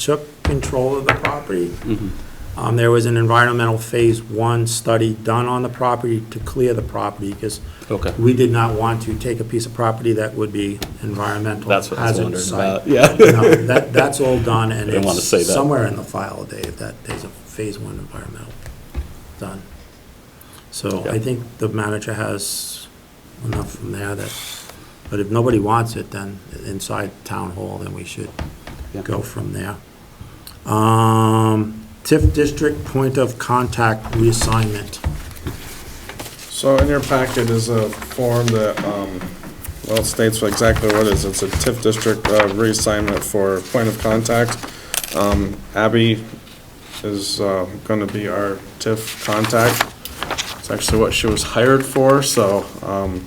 took control of the property. Um, There was an environmental phase one study done on the property to clear the property, because Okay. we did not want to take a piece of property that would be environmental That's what I was hazard wondering site. about, yeah. No, That, that's all done, and I didn't wanna say that. it's somewhere in the file, Dave, that there's a phase one environmental done. So I Yeah. think the manager has enough from there that, but if nobody wants it, then inside town hall, then we should Yeah. go from there. Um, TIF district point of contact reassignment. So in your packet is a form that, um, well, it states exactly what it is. It's a TIF district uh, reassignment for point of contact. Um, Abby is uh, gonna be our TIF contact. It's actually what she was hired for, so um,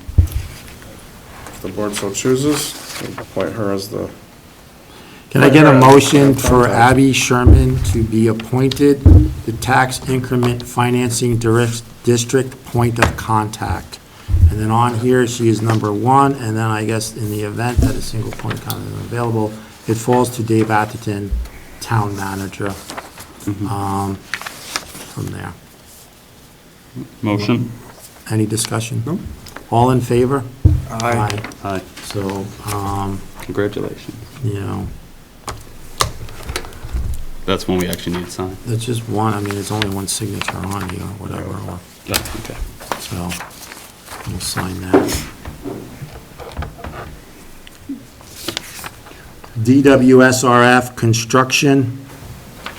if the board so chooses, we'll appoint her as the, Can I get a Right, right. motion for Abby Sherman to be appointed the Tax Increment Financing Direct- District Point of Contact? And then on here, she is number one, and then I guess in the event that a single point of contact is available, it falls to Dave Atherton, Town Manager, um, from there. Motion? Any discussion? No. All in favor? Aye. Aye. So, um, Congratulations. you know, That's when we actually need to sign. that's just one, I mean, there's only one signature on here, or whatever, or Okay. So we'll sign that. DWSRF Construction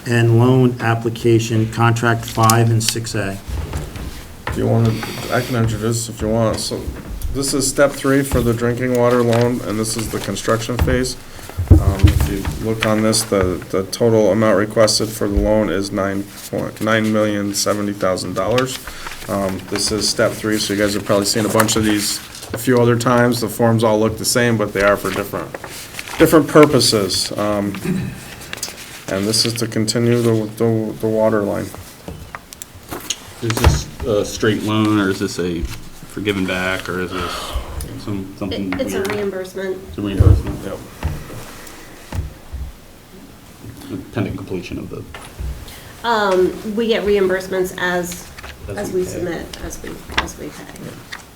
and Loan Application Contract 5 and 6A. if you want to, I can introduce if you want. So this is step three for the drinking water loan, and this is the construction phase. Um, If you look on this, the, the total amount requested for the loan is nine point, nine million seventy thousand dollars. Um, This is step three, so you guys have probably seen a bunch of these a few other times. The forms all look the same, but they are for different, different purposes. Um, And this is to continue the, the, the water line. Is this a straight loan, or is this a forgiven back, or is this some, something It- weird? It's a reimbursement. It's a reimbursement? Yep. Pending completion of the, Um, we get reimbursements as, As as we we pay. submit, as we, as we pay. E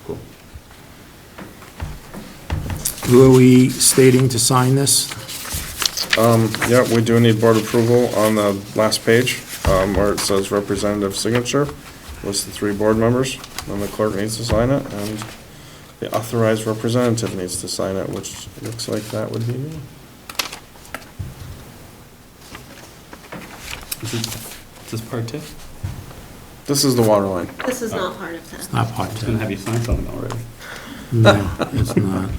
cool. Who are we stating to sign this? Um, Yeah, we do need board approval on the last page, um, where it says representative signature, lists the three board members, and the clerk needs to sign it, and the authorized representative needs to sign it, which looks like that would be me. Is this, is this part two? I This is the water line. This is not part of that. Not part was 10. gonna have you sign something already. No, it's not.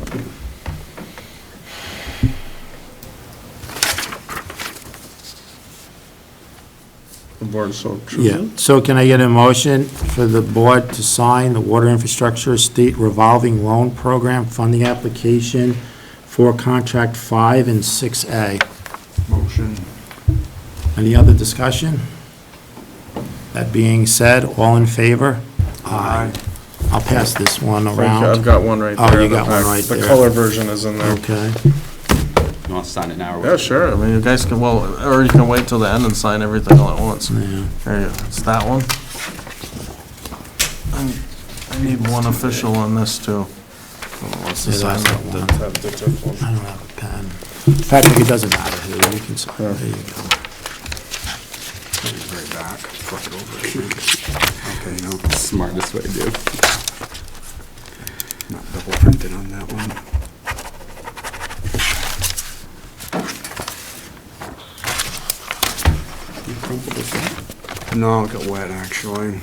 The board so Yeah, chooses. so can I get a motion for the board to sign the Water Infrastructure State Revolving Loan Program Funding Application for Contract 5 and 6A? Motion. Any other discussion? That being said, all in favor? I'll pass this one Thank you. I've around. got one right Oh, there. you in the got one back. right The there. color version is in there. Okay, You wanna sign it now, or? Yeah, sure, I mean, you guys can, well, or you can wait till the end and sign everything all at once. yeah. There you go, it's that one. And I need one official on this, too. Yeah, that's that one. That's I don't have a pen. In fact, it doesn't matter who, you can sign, there you go. Right back, flip it over. Okay, no, Smartest way to do. not double printed on that one. No, it got wet, actually.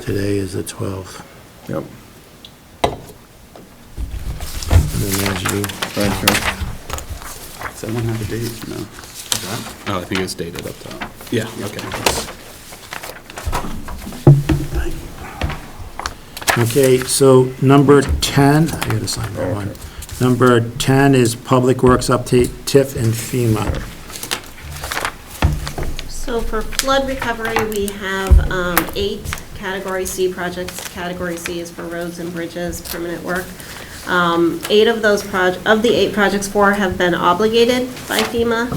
Today is the 12th, Yep, and then there's you. thank you. Does that one have a date? No. Oh, I think it's dated up top. Yeah, okay. Okay, so number 10, I gotta sign that one. Number 10 is Public Works Update, TIF and FEMA. So for flood recovery, we have, um, eight category C projects. Category C is for roads and bridges, permanent work. Um, eight of those proj, of the eight projects, four have been obligated by FEMA.